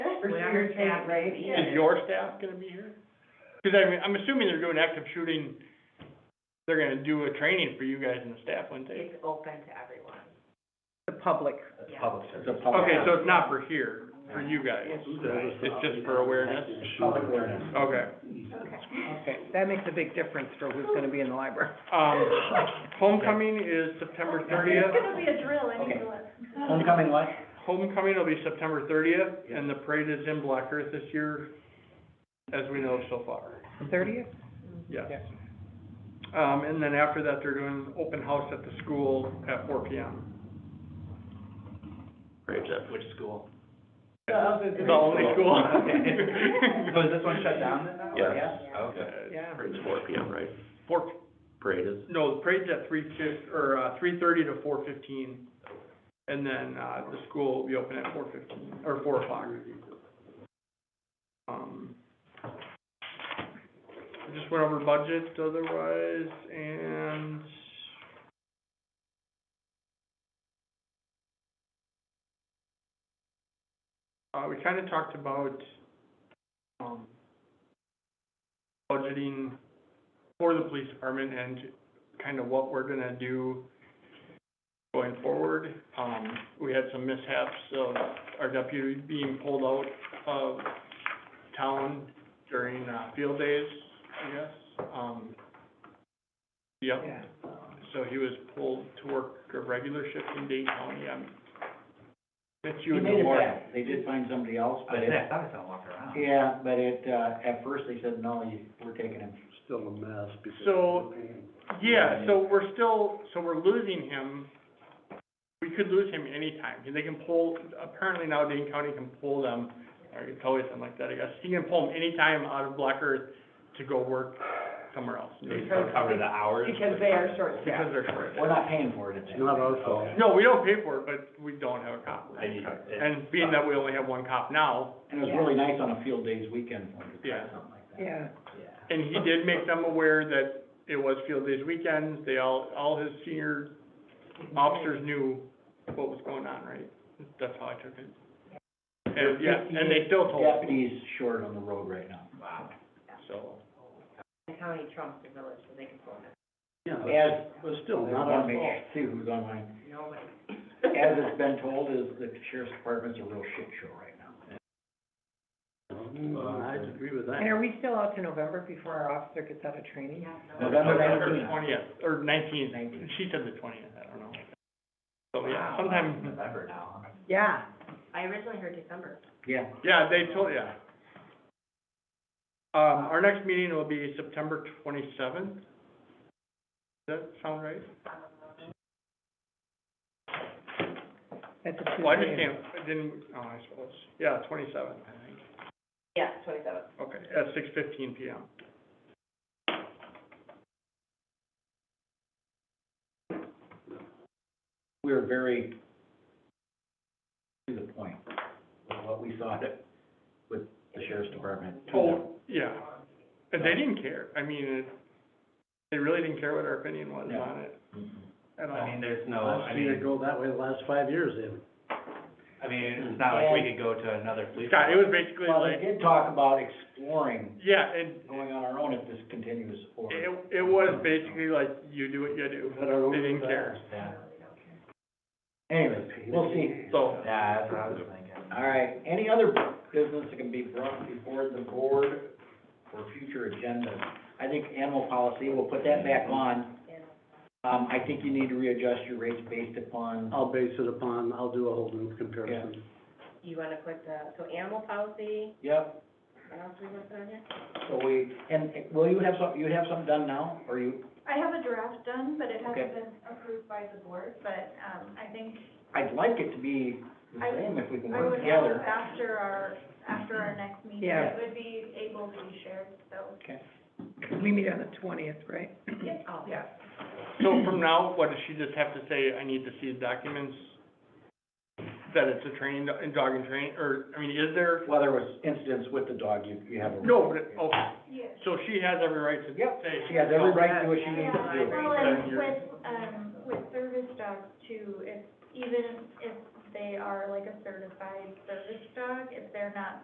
your staff right? is Yeah. Is your staff gonna be here? Cause I mean, I'm assuming they're doing active shooting, they're gonna do a training for you guys and the staff, wouldn't they? It's open to everyone, The public. yeah. Public service. It's a Oh, public- Okay, so it's not for here, for you guys, it's just for awareness? Public awareness. Okay, Okay, that makes a big difference for who's gonna be in the library. um, homecoming is September thirtieth, be a drill, I Okay. need to look. Homecoming what? homecoming will be September thirtieth, and the parade is in Black Earth this year, as we know so far, Thirtieth? yes. Um, and then after that, they're doing open house at the school at four P M. Great, Which school? It's the only school. So is this one shut down then now? Yes. Yeah? Okay. Yeah. It's four P M, right? Four, Parade is? no, the parade's at three fif, or, uh, three thirty to four fifteen, and then, uh, the school will be open at four fifteen, or four o'clock. Um, I just went over budget otherwise, and uh, we kinda talked about, um, budgeting for the police department and kind of what we're gonna do going forward. Um, we had some mishaps of our deputy being pulled out of town during, uh, field days, I guess. Um, yep, Yeah. so he was pulled to work a regular shift in Dayton County, um, it's He you in made the it morning. back. They did find somebody else, but it, thought I saw him walking around. yeah, but it, uh, at first they said, no, you, we're taking him. Still a mess because So- of the pain. Yeah, so we're still, so we're losing him, we could lose him anytime, they can pull, apparently now Dane County can pull them, or it's always something like that, I guess, he can pull them anytime out of Black Earth to go work somewhere else. Cover the hours. Because they are short Because staffed. they're short. We're not paying for it at that. It's not our fault. No, we don't pay for it, but we don't have a cop. I mean, it- And being that we only have one cop now, And it was really nice on a field days weekend for him to try Yeah. something like that. Yeah, Yeah. and he did make them aware that it was field days weekends, they all, all his senior officers knew what was going on, right? That's how I took it. And, yeah, and they still told us, Deputies short on the road right now. Wow. so. The county trumps the village, so they can pull them, Yeah, but- As, but still, I not wanna our make fault. sure, see who's online. nobody. As it's been told, is the sheriff's department's a real shit show right now. Mm, I agree with and that. are we still out to November before our officer gets out of training? Yeah, no. November November nineteenth. twentieth, or nineteenth, Nineteenth. she said the twentieth, I don't know. So, yeah, sometime, November now. Yeah. I originally heard December. Yeah. yeah, they told, yeah. Um, our next meeting will be September twenty-seventh. Does that sound right? That's a Tuesday. Well, I just can't, I didn't, oh, I suppose, yeah, twenty-seventh, I think. Yeah, twenty-seventh. Okay, at six fifteen P M. we were very to the point with what we thought it with the sheriff's department. Oh, yeah, and they didn't care, I mean, it, they really didn't care what our opinion was Yeah. on it I at all. mean, there's no, I I've seen it mean, go that way the last five years, they haven't. I mean, it's not like we could go to another police. Scott, it was basically Well, they like, did talk about exploring yeah, and going on our own if this continues or. it, it was basically like, you do what you do, But our own they didn't bad. care, Yeah, Anyways, we'll see. so. yeah, that's what I was thinking. All right, any other business that can be brought before the board for future agendas? I think animal policy, we'll put that back on. Um, I think you need to readjust your rates based upon, I'll base it upon, I'll do a Holden comparison. You wanna put the, so animal policy, yep, what else we wanna put on here? So we, and and will you have some, you have something done now, or you, I have a draft done, but it Okay. hasn't been approved by the board, but, um, I think I'd like it to be the I- same if we can I work would hope together. after our, after our next meeting, Yeah. it would be able to be shared, so. We meet on the twentieth, right? Oh, Yeah. So from now, what does she just have to say, I need to see the documents? That it's a training, and dog and train, or, I mean, is there, Well, there was incidents with the dog, you, you have a. no, but, it- okay, Yes. so she has every right to say. Yep, She has every right to do what she needs to Yeah, do. well, Then and you're- with, um, with service dogs too, if, even if they are like a certified service dog, if they're not